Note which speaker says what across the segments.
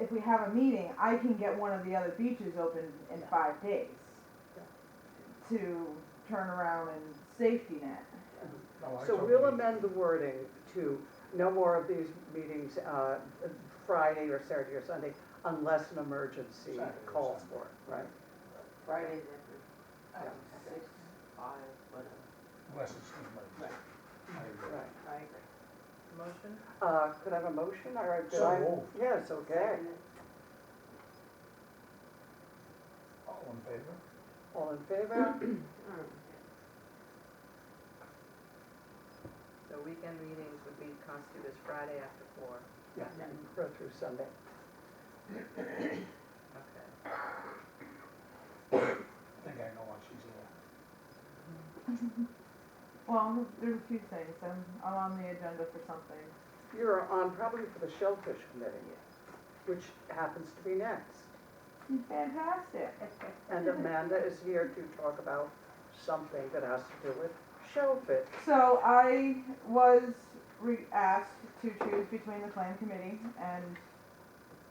Speaker 1: if we have a meeting, I can get one of the other beaches open in five days to turn around and safety net.
Speaker 2: So we'll amend the wording to no more of these meetings uh, Friday or Saturday or Sunday unless an emergency
Speaker 3: Saturday or
Speaker 2: calls
Speaker 3: Sunday.
Speaker 2: for it, right?
Speaker 4: Fridays after,
Speaker 2: Yeah.
Speaker 4: six, five, whatever.
Speaker 3: Unless it's emergency. I agree.
Speaker 2: Right.
Speaker 4: I agree. Motion?
Speaker 2: Uh, Could I have a motion or did
Speaker 3: So
Speaker 2: I?
Speaker 3: moved.
Speaker 2: Yes, okay.
Speaker 3: All in favor?
Speaker 2: All in favor?
Speaker 4: Mm. So weekend meetings would be constituted as Friday after four,
Speaker 2: Yeah, and go through Sunday.
Speaker 4: okay.
Speaker 3: I think I know what she's doing.
Speaker 1: Well, there's a few things, I'm, I'm on the agenda for something.
Speaker 2: You're on probably for the Shellfish Committee, which happens to be next.
Speaker 1: Fantastic.
Speaker 2: And Amanda is here to talk about something that has to do with shellfish.
Speaker 1: So I was re- asked to choose between the plan committee and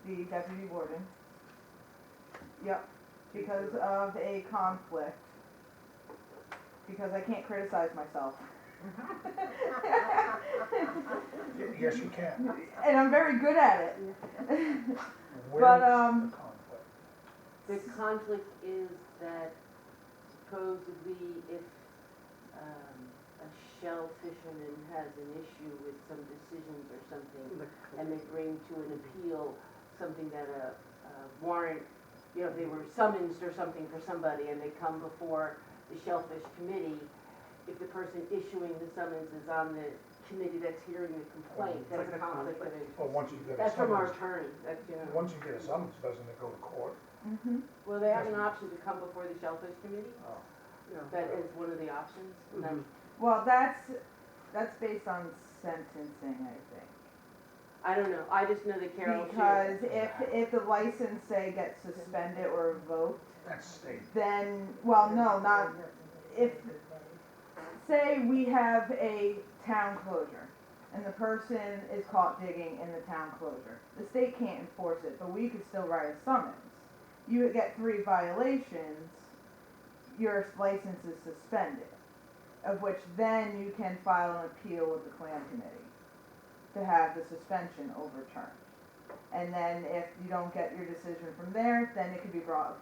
Speaker 1: the deputy warden. Yep, because of a conflict. Because I can't criticize myself.
Speaker 3: Y- Yes, you can.
Speaker 1: And I'm very good at it. But,
Speaker 3: Where's the
Speaker 1: um,
Speaker 3: conflict?
Speaker 5: The conflict is that supposedly if um, a shell fisherman has an issue with some decisions or something, and they bring to an appeal something that a a warrant, you know, they were summoned or something for somebody, and they come before the shellfish committee, if the person issuing the summons is on the committee that's hearing the complaint,
Speaker 2: It's
Speaker 5: that's
Speaker 2: like a
Speaker 5: a conflict of
Speaker 2: conflict.
Speaker 5: interest.
Speaker 3: Well, Oh, once you get a
Speaker 5: That's from our
Speaker 3: summons,
Speaker 5: attorney, that's, you know.
Speaker 3: once you get a summons, doesn't it go to court?
Speaker 1: Mhm.
Speaker 5: Well, they have an option to come before the shellfish committee.
Speaker 3: Oh.
Speaker 2: Yeah.
Speaker 5: That is one of the options. and I'm-
Speaker 1: Well, that's, that's based on sentencing, I think.
Speaker 5: I don't know, I just know that Carol, she,
Speaker 1: Because if, if the license, say, gets suspended or revoked,
Speaker 3: That's state.
Speaker 1: then, well, no, not, if, say we have a town closure, and the person is caught digging in the town closure. The state can't enforce it, but we could still write a summons. You would get three violations, your license is suspended, of which then you can file an appeal with the plan committee to have the suspension overturned. And then if you don't get your decision from there, then it could be brought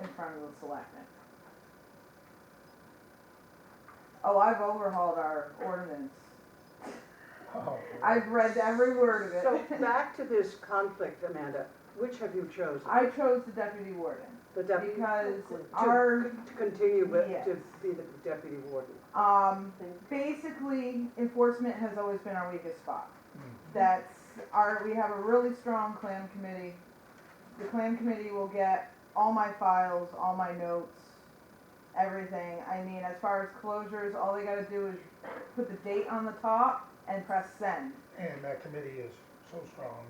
Speaker 1: in front of the selectmen. Oh, I've overhauled our ordinance.
Speaker 3: Oh,
Speaker 1: I've read every word of
Speaker 2: So
Speaker 1: it.
Speaker 2: back to this conflict, Amanda, which have you chosen?
Speaker 1: I chose the deputy warden
Speaker 2: The deputy,
Speaker 1: because
Speaker 2: To-
Speaker 1: our,
Speaker 2: to continue with, to
Speaker 1: Yes.
Speaker 2: be the deputy warden.
Speaker 1: um, basically enforcement has always been our weakest spot.
Speaker 3: Mm.
Speaker 1: That's our, we have a really strong clan committee. The clan committee will get all my files, all my notes, everything. I mean, as far as closures, all they gotta do is put the date on the top and press send.
Speaker 3: And that committee is so strong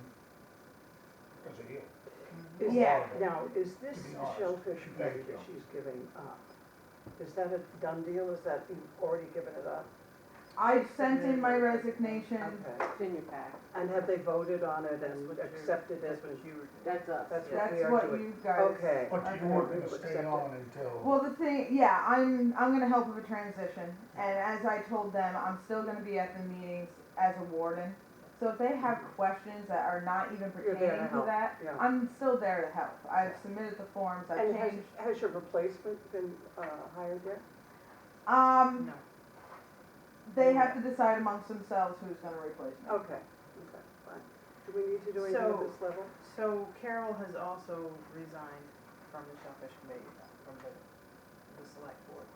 Speaker 3: because of you.
Speaker 2: Is-
Speaker 1: Yeah.
Speaker 2: Now, is this
Speaker 3: To be
Speaker 2: the
Speaker 3: honest,
Speaker 2: shellfish
Speaker 3: thank
Speaker 2: committee that
Speaker 3: you.
Speaker 2: she's giving up? Is that a done deal? Is that, you've already given it up?
Speaker 1: I've sent in my resignation.
Speaker 2: Okay.
Speaker 5: it's in your pack,
Speaker 2: And have they voted on it and
Speaker 4: That's what you-
Speaker 2: accepted it?
Speaker 5: that's us.
Speaker 2: That's
Speaker 5: yeah.
Speaker 1: That's
Speaker 2: We are
Speaker 1: what
Speaker 2: doing-
Speaker 1: you guys.
Speaker 2: Okay.
Speaker 3: But
Speaker 1: Okay.
Speaker 3: you weren't
Speaker 2: We'll
Speaker 3: gonna stay
Speaker 2: accept it.
Speaker 3: on until,
Speaker 1: Well, the thing, yeah, I'm, I'm gonna help with the transition, and as I told them, I'm still gonna be at the meetings as a warden. So if they have questions that are not even
Speaker 2: You're there to
Speaker 1: pertaining to
Speaker 2: help,
Speaker 1: that,
Speaker 2: yeah.
Speaker 1: I'm still there to help. I've submitted the forms, I've
Speaker 2: And has,
Speaker 1: changed.
Speaker 2: has your replacement been uh, hired yet?
Speaker 1: Um,
Speaker 4: No.
Speaker 1: they have to decide amongst themselves who's gonna replace me.
Speaker 2: Okay, okay, fine. Do we need to do anything at
Speaker 4: So-
Speaker 2: this level?
Speaker 4: So Carol has also resigned from the Shellfish Committee, from the, the Select Board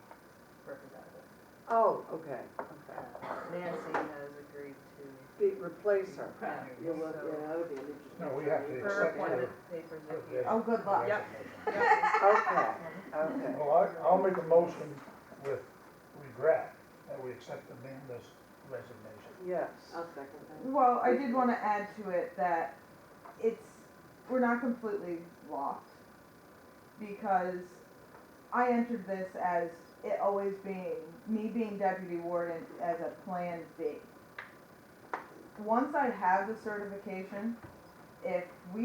Speaker 4: representative.
Speaker 2: Oh, okay, okay.
Speaker 4: Nancy has agreed to,
Speaker 2: Be, replace her.
Speaker 4: yeah,
Speaker 5: You'll look,
Speaker 4: so
Speaker 5: yeah, that would be an interesting.
Speaker 3: No, we have to-
Speaker 4: her
Speaker 3: Except for-
Speaker 4: appointment papers are
Speaker 3: Okay.
Speaker 4: here.
Speaker 1: Oh, good luck.
Speaker 4: Yep.
Speaker 2: Okay, okay.
Speaker 3: well, I, I'll make a motion with regret that we accept Amanda's resignation.
Speaker 2: Yes.
Speaker 5: I'll second that.
Speaker 1: Well, I did wanna add to it that it's, we're not completely locked, because I entered this as it always being, me being deputy warden as a plan B. Once I have the certification, if we